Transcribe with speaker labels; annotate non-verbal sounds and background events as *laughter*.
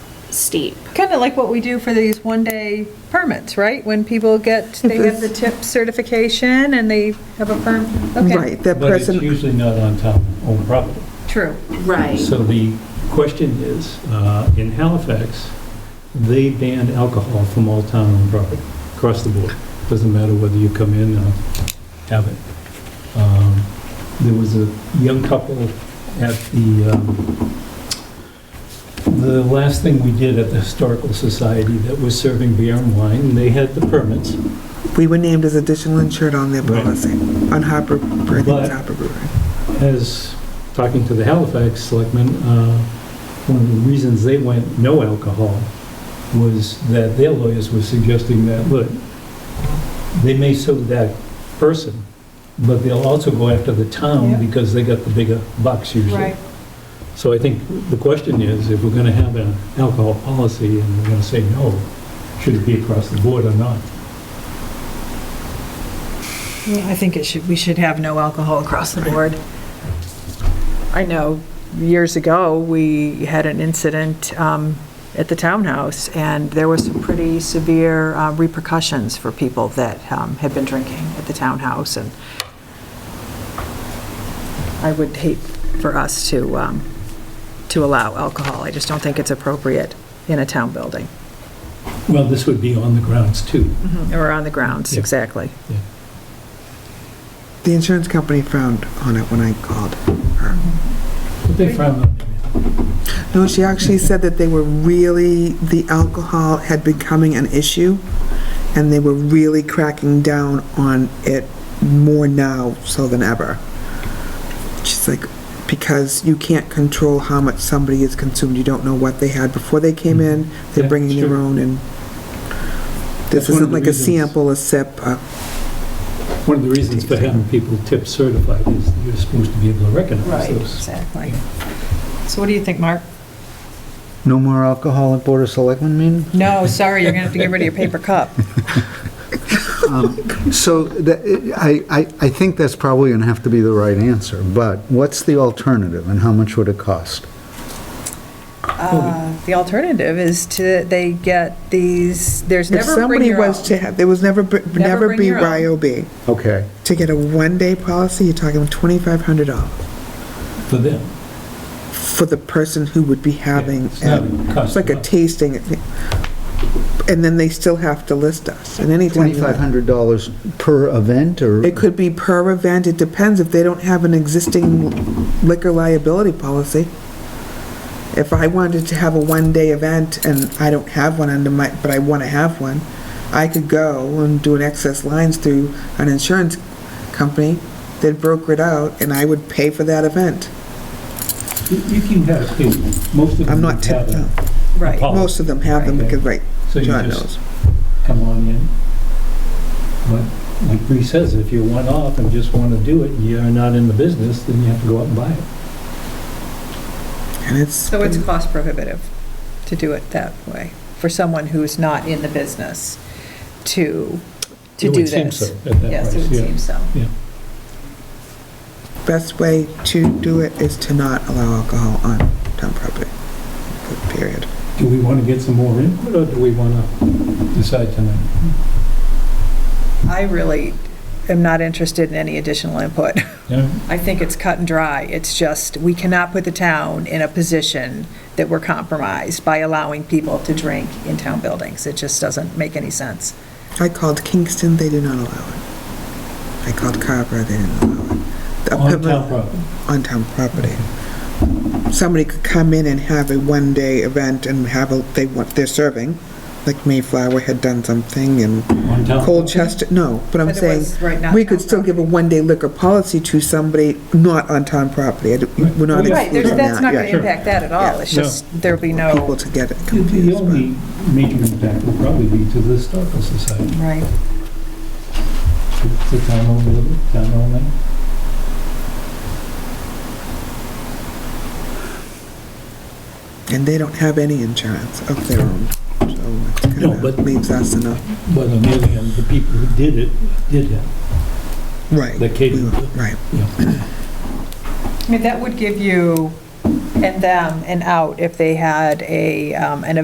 Speaker 1: steep.
Speaker 2: Kind of like what we do for these one-day permits, right? When people get, they have the tip certification and they have a perm, okay,
Speaker 3: Right, that
Speaker 4: But it's
Speaker 3: person,
Speaker 4: usually not on town owned property.
Speaker 2: true.
Speaker 1: Right.
Speaker 4: So the question is, uh, in Halifax, they banned alcohol from all town owned property, across the board. Doesn't matter whether you come in or have it. Um, There was a young couple at the, um, the last thing we did at the Historical Society that was serving beer and wine, they had the permits,
Speaker 3: we were named as additional insured on their
Speaker 4: Right.
Speaker 3: policy, on Harper, I think it's
Speaker 4: But-
Speaker 3: Harper Brewery.
Speaker 4: as, talking to the Halifax selectmen, uh, one of the reasons they went no alcohol was that their lawyers were suggesting that, look, they may sue that person, but they'll also go after the
Speaker 2: Yeah.
Speaker 4: town because they got the bigger bucks usually.
Speaker 2: Right.
Speaker 4: So I think the question is, if we're gonna have an alcohol policy and we're gonna say no, should it be across the board or not?
Speaker 2: I think it should, we should have no alcohol across the board. I know, years ago, we had an incident um, at the townhouse, and there were some pretty severe uh, repercussions for people that um, had been drinking at the townhouse, and I would hate for us to, um, to allow alcohol. I just don't think it's appropriate in a town building,
Speaker 4: Well, this would be on the grounds too.
Speaker 2: or on the grounds,
Speaker 4: Yeah.
Speaker 2: exactly.
Speaker 3: The insurance company frowned on it when I called her.
Speaker 4: But they frown on it.
Speaker 3: No, she actually said that they were really, the alcohol had becoming an issue, and they were really cracking down on it more now so than ever. She's like, because you can't control how much somebody is consumed, you don't know what they had before they came in, they're
Speaker 4: Mm-hmm. Yeah,
Speaker 3: bringing their
Speaker 4: sure.
Speaker 3: own, and
Speaker 4: That's
Speaker 3: this
Speaker 4: one
Speaker 3: isn't
Speaker 4: of the
Speaker 3: like a
Speaker 4: reasons-
Speaker 3: sample, a sip, a
Speaker 4: One of the reasons for having people tip certified is you're supposed to be able to recognize those.
Speaker 2: exactly. So what do you think, Mark?
Speaker 5: No more alcohol at Board of Selectmen meeting?
Speaker 2: No, sorry, you're going to have to get rid of your paper cup.
Speaker 5: So that- I, I, I think that's probably going to have to be the right answer, but what's the alternative and how much would it cost?
Speaker 2: Uh, The alternative is to, they get these, there's
Speaker 3: If
Speaker 2: never bring
Speaker 3: somebody
Speaker 2: your
Speaker 3: was
Speaker 2: own.
Speaker 3: to have, there was never, br- never
Speaker 2: bring
Speaker 3: be
Speaker 2: your own.
Speaker 3: YOB.
Speaker 5: Okay,
Speaker 3: To get a one-day policy, you're talking $2,500
Speaker 4: For them.
Speaker 3: for the person who would be having,
Speaker 4: It's not
Speaker 3: it.
Speaker 4: cost
Speaker 3: it's like a
Speaker 4: much.
Speaker 3: tasting. And then they still have to list us at any time. you want.
Speaker 5: $2,500 per event or?
Speaker 3: It could be per event, it depends if they don't have an existing liquor liability policy. If I wanted to have a one-day event and I don't have one under my, but I want to have one, I could go and do an excess lines through an insurance company that broker it out and I would pay for that event.
Speaker 4: You you can have two. Most of them.
Speaker 3: I'm not,
Speaker 4: have
Speaker 3: tip-
Speaker 4: a-
Speaker 2: Right.
Speaker 4: Paul.
Speaker 3: most of them have them
Speaker 4: Right.
Speaker 3: because like
Speaker 4: So you
Speaker 3: John
Speaker 4: just
Speaker 3: knows.
Speaker 4: come on in. But like Bree says, if you're one off and just want to do it, and you're not in the business, then you have to go out and buy it.
Speaker 3: And it's.
Speaker 2: So it's cost prohibitive to do it that way, for someone who's not in the business to, to
Speaker 4: It
Speaker 2: do
Speaker 4: would seem so
Speaker 2: this.
Speaker 4: at that
Speaker 2: Yes, it
Speaker 4: price,
Speaker 2: would
Speaker 4: yeah.
Speaker 2: seem so.
Speaker 3: best way to do it is to not allow alcohol on town property, period.
Speaker 4: Do we want to get some more input or do we want to decide tonight?
Speaker 2: I really am not interested in any additional input. *laughs*
Speaker 4: Yeah?
Speaker 2: I think it's cut and dry. It's just, we cannot put the town in a position that we're compromised by allowing people to drink in town buildings. It just doesn't make any sense.
Speaker 3: I called Kingston, they did not allow it. I called Carver, they didn't allow it. The
Speaker 4: On
Speaker 3: Pembroke-
Speaker 4: town property.
Speaker 3: On town property. Somebody could come in and have a one-day event and have a, they want, they're serving, like Mayflower had done something and
Speaker 4: On town.
Speaker 3: Colchester, no, but I'm
Speaker 2: But it
Speaker 3: saying,
Speaker 2: was right not
Speaker 3: we could
Speaker 2: town
Speaker 3: still give a one-day liquor policy to somebody not on town property. I don't-
Speaker 4: Right.
Speaker 3: We're not
Speaker 4: Right,
Speaker 2: Right, there's,
Speaker 3: excluding
Speaker 2: that's
Speaker 3: that,
Speaker 2: not
Speaker 3: yeah.
Speaker 2: going to impact that at all. It's
Speaker 4: No.
Speaker 2: just, there'll be
Speaker 3: People
Speaker 2: no,
Speaker 3: to get it
Speaker 4: The- The
Speaker 3: confused. but-
Speaker 4: only major impact will probably be to the Historical Society.
Speaker 2: right.
Speaker 4: It's a town owned building, town owned land.
Speaker 3: And they don't have any insurance of their own, so it
Speaker 4: No,
Speaker 3: kind of
Speaker 4: but-
Speaker 3: leaves us in a,
Speaker 4: But on the other hand, the people who did it, did it.
Speaker 3: right.
Speaker 4: That catered
Speaker 3: we-
Speaker 4: to-
Speaker 3: Right.
Speaker 2: I mean, that would give you and them an out if they had a, um, an